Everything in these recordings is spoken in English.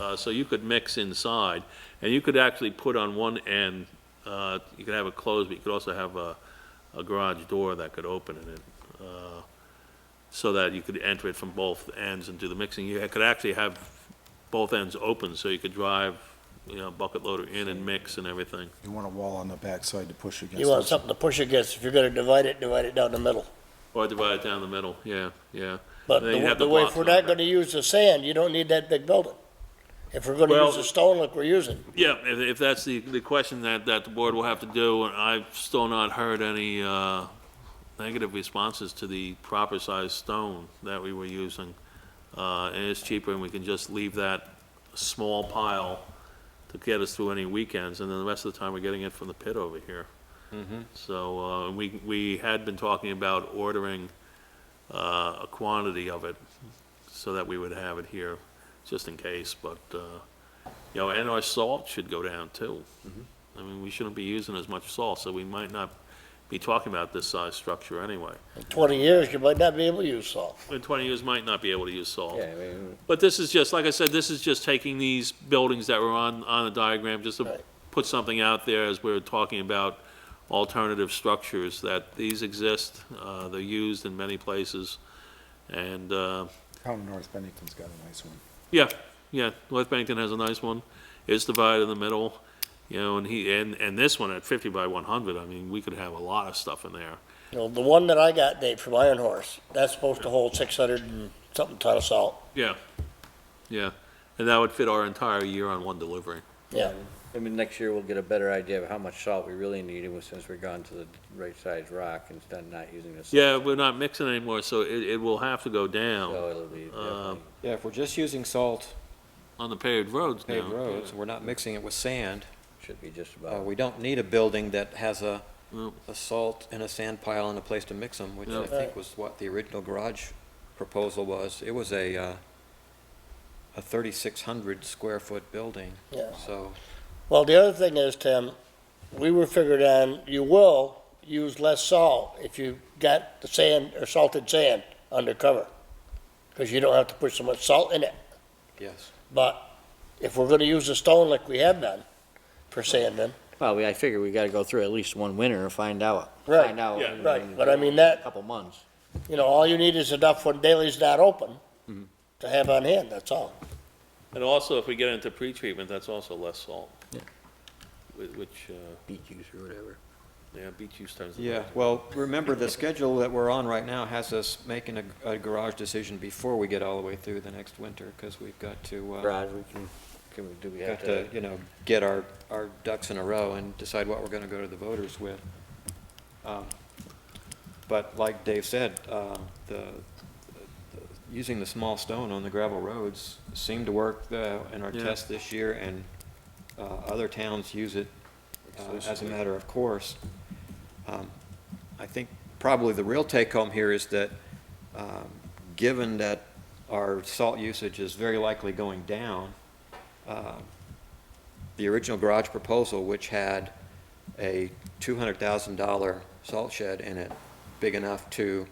Uh, So you could mix inside, and you could actually put on one end, uh, you could have it closed, but you could also have a, a garage door that could open in it, uh, so that you could enter it from both ends and do the mixing. You could actually have both ends open, so you could drive, you know, bucket loader in and mix and everything. You want a wall on the backside to push against. You want it. something to push against. If you're gonna divide it, divide it down the middle. Or divide it down the middle, yeah, yeah. But Then you'd the have the the way, blocks if we're on not there. gonna use the sand, you don't need that big building. If we're gonna Well- use the stone like we're using, Yeah, if, if that's the, the question that, that the board will have to do, and I've still not heard any, uh, negative responses to the proper size stone that we were using. Uh, and it's cheaper and we can just leave that small pile to get us through any weekends, and then the rest of the time we're getting it from the pit over here. So, uh, we, we had been talking about ordering, uh, a quantity of it so that we would have it here, just in case, but, uh, you know, and our salt should go down too. Mm-hmm. I mean, we shouldn't be using as much salt, so we might not be talking about this size structure anyway. in twenty years, you might not be able to use salt. In twenty years, might not be able to use salt. Yeah, I mean, But this is just, like I said, this is just taking these buildings that were on, on the diagram, just to Right. put something out there as we we're talking about alternative structures, that these exist, uh, they're used in many places. And, uh, Town of North Bennington's got a nice one. yeah, yeah, North Bennington has a nice one. It's divided in the middle, you know, and he, and, and this one at fifty by one hundred, I mean, we could have a lot of stuff in there. You know, the one that I got, Dave, from Iron Horse, that's supposed to hold six hundred and something ton of salt. Yeah. Yeah, and that would fit our entire year on one delivery. Yeah, I mean, next year we'll get a better idea of how much salt we really need, and since we're gone to the right size rock instead of not using the. salt, Yeah, we're not mixing anymore, so it, it will have to go down So it'll be Uh, definitely. Yeah, if we're just using salt on the paved roads now. paved roads, we're not mixing it with sand, Should be just uh, about, we don't need a building that has a, Nope. a salt and a sand pile and a place to mix them, which I Nope. think was what the original garage proposal was. It was a, uh, a thirty-six hundred square foot building, yeah. so, Well, the other thing is, Tim, we were figured on, you will use less salt if you got the sand or salted sand undercover. Cause you don't have to put so much salt in it. yes. But if we're gonna use the stone like we have done for sanding, well, we- I figure we gotta go through at least one winter and find out. Right, Find out. yeah, in- right, in but I mean that- a Couple months. you know, all you need is enough when Daley's not open to have on hand, that's all. And also, if we get into pretreatment, that's also less salt. Whi- Which, uh, Beet juice or whatever. yeah, beet juice turns. into Yeah, that. well, remember, the schedule that we're on right now has us making a, a garage decision before we get all the way through the next winter, because we've got to, uh, Garage, we can, can we, do we have have to, to? you know, get our, our ducks in a row and decide what we're gonna go to the voters with. Um, But like Dave said, uh, the, the- using the small stone on the gravel roads seemed to work uh, in our Yeah. test this year, and uh, other towns use it uh, as a matter of course. Um, I think probably the real take-home here is that, um, given that our salt usage is very likely going down, um, the original garage proposal, which had a $200,000 salt shed in it, big enough to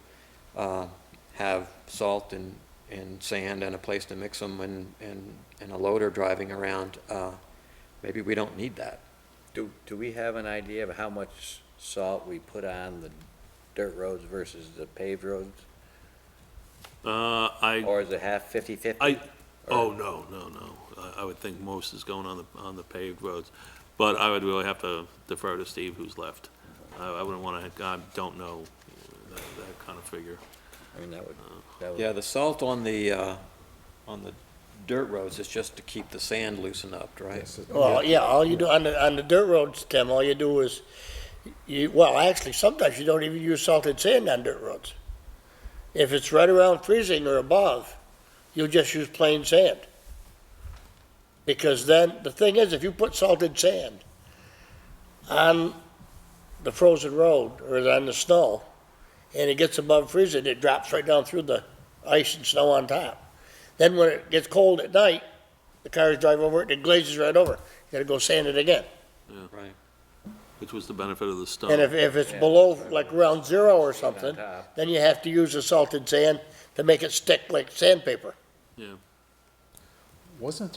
uh, have salt and, and sand and a place to mix them and, and, and a loader driving around, uh, maybe we don't need that. Do, do we have an idea of how much salt we put on the dirt roads versus the paved roads? Uh, I, Or is it half, fifty-fifty? I, oh, no, no, no. I, I would think most is going on the, on the paved roads. But I would really have to defer to Steve, who's left. I, I wouldn't want to, I don't know that, that kind of figure. I mean, that would, that would. Yeah, the salt on the, uh, on the dirt roads is just to keep the sand loosened up, right? Yes, it- Well, yeah, all you do on the, on the dirt roads, Tim, all you do is, you, well, actually, sometimes you don't even use salted sand on dirt roads. If it's right around freezing or above, you'll just use plain sand. Because then, the thing is, if you put salted sand on the frozen road or on the snow, and it gets above freezing, it drops right down through the ice and snow on top. Then when it gets cold at night, the cars drive over it, and it glazes right over. You gotta go sand it again. Right. Which was the benefit of the stone. And if, if it's Yeah. below, like around zero or on something, top. then you have to use the salted sand to make it stick like sandpaper. Wasn't